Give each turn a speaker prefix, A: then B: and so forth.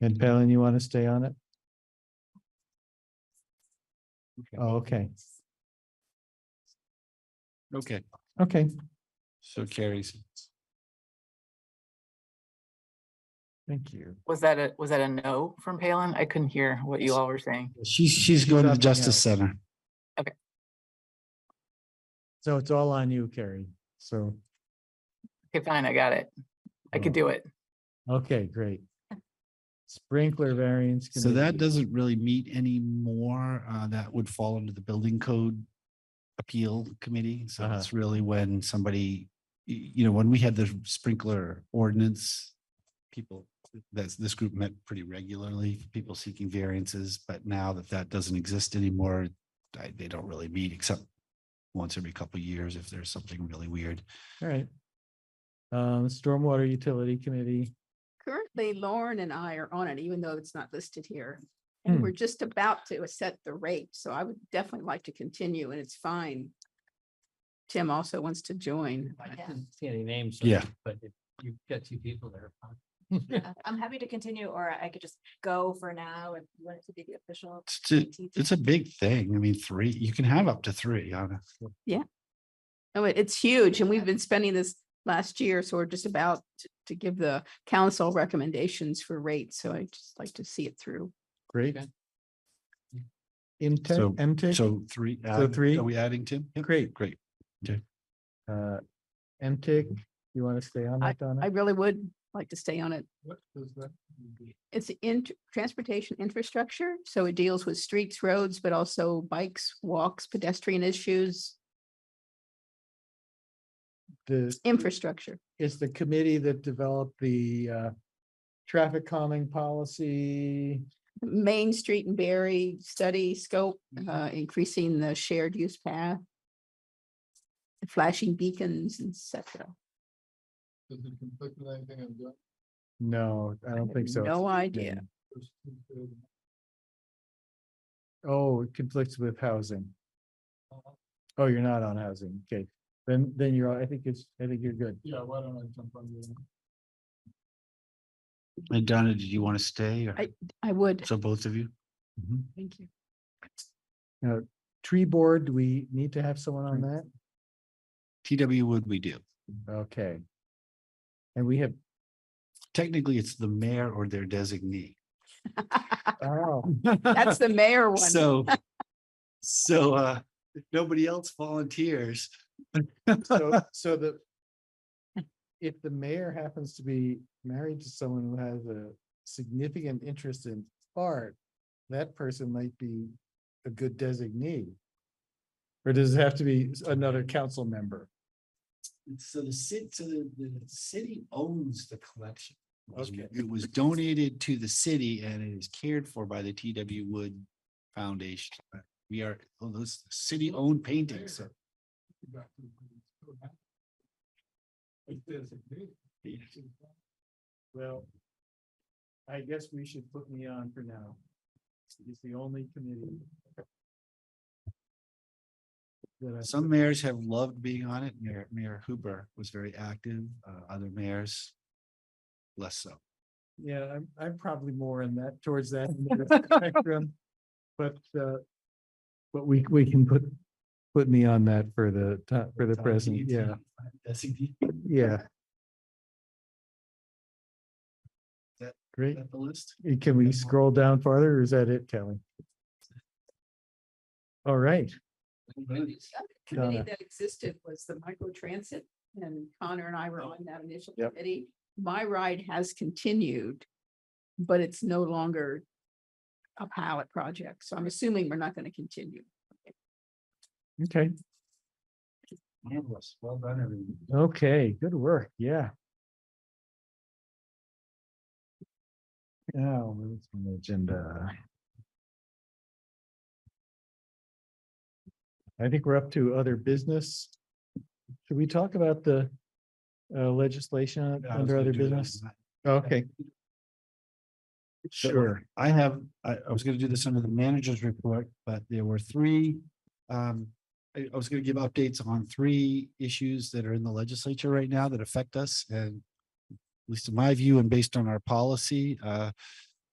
A: And Palin, you want to stay on it?
B: Okay.
A: Oh, Okay,
B: Okay,
A: okay.
B: so carries.
A: Thank you.
C: Was that a, was that a no from Palin? I couldn't hear what you all were saying.
D: She's, she's going to the
A: up,
D: Justice Center.
A: So it's all on you, Carrie. So,
C: Okay, fine, I got it. I could do it.
A: okay, great. Sprinkler variance.
D: So that
A: committee.
D: doesn't really meet anymore. Uh, that would fall under the Building Code Appeal Committee. So
A: Uh-huh.
D: it's really when somebody, y- you know, when we had the sprinkler ordinance, people, that's, this group met pretty regularly, people seeking variances, but now that that doesn't exist anymore, I- they don't really meet except once every couple of years if there's something really weird.
A: All right. Um, Stormwater Utility Committee.
E: Currently, Lauren and I are on it, even though it's not listed here.
A: Hmm.
E: And we're just about to set the rate, so I would definitely like to continue, and it's fine. Tim also wants to join.
F: I
E: but-
F: didn't see any names. so-
D: Yeah.
F: But if you've got two people there.
G: Yeah, Uh, I'm happy to continue, or I could just go for now if you want it to be the official.
D: It's to-
G: TT.
D: it's a big thing. I mean, three, you can have up to three on a
E: Oh, it- it's huge, and we've been spending this last year, so we're just about to- to give the council recommendations for rates, so I'd just like to see it through.
A: Great.
F: Okay.
D: So-
A: Imtech, Mtech,
D: So three.
A: So
D: add-
A: three?
D: Are we adding Tim? Yeah,
A: Great.
D: Great.
A: uh, Mtech, you want to stay on that,
E: I
A: Donna?
E: really would like to stay on it.
F: What was that?
E: It's in transportation infrastructure, so it deals with streets, roads, but also bikes, walks, pedestrian issues,
A: The,
E: infrastructure.
A: it's the committee that developed the, uh, traffic calming policy.
E: Main Street and Berry study scope,
D: Mm-hmm.
E: uh, increasing the shared use path. the Flashing beacons, et cetera.
F: Does it conflict with anything I'm doing?
A: No, I don't think so.
E: No idea.
A: Oh, it conflicts with housing. Oh, you're not on housing. Okay, then, then you're, I think it's, I think you're good.
F: Yeah, why don't I jump on you?
D: And Donna, did you want to stay or
E: I would.
D: so both of you?
E: Thank you.
A: Tree board, do we need to have someone on that?
D: TW would we do?
A: Okay. And we have,
D: Technically, it's the mayor or their designee.
A: oh,
E: That's the mayor one.
D: So, so, uh, if nobody else volunteers.
A: so, so the. If the mayor happens to be married to someone who has a significant interest in art, that person might be a good designee. Or does it have to be s- another council member?
D: So the city, so the, the city owns the collection. It was-
A: Okay.
D: It was donated to the city and it is cared for by the TW Wood Foundation. We are, oh, those city-owned paintings. so-
A: Well, I guess we should put me on for now. It's the only committee. That I,
D: Some mayors have loved being on it. Mayor, Mayor Hooper was very active, uh, other mayors less so.
A: yeah, I'm, I'm probably more in that, towards that end of the spectrum. But, uh, but we, we can put, put me on that for the, ti- for the present, yeah,
D: Designee,
A: yeah.
D: That-
A: Great.
D: is that the list?
A: Uh, Can we
D: Good one.
A: scroll down farther or is that it, Kelly? All right,
E: Committee
A: Donna.
E: that existed was the micro transit and Connor and I were
D: Oh.
E: on that initial
A: Yep.
E: committee. My ride has continued, but it's no longer a pilot project, so I'm assuming we're not going to continue.
A: okay,
D: Marvelous. Well done, everyone.
A: okay, good work, yeah. Now, what's on the agenda? I think we're up to other business. Should we talk about the uh, legislation
D: Yeah, I was
A: under
D: gonna
A: other
D: do that.
A: business? Okay,
D: Sure, I have, I, I was gonna do this under the manager's report, but there were three. Um, I, I was gonna give updates on three issues that are in the legislature right now that affect us and. At least in my view and based on our policy, uh,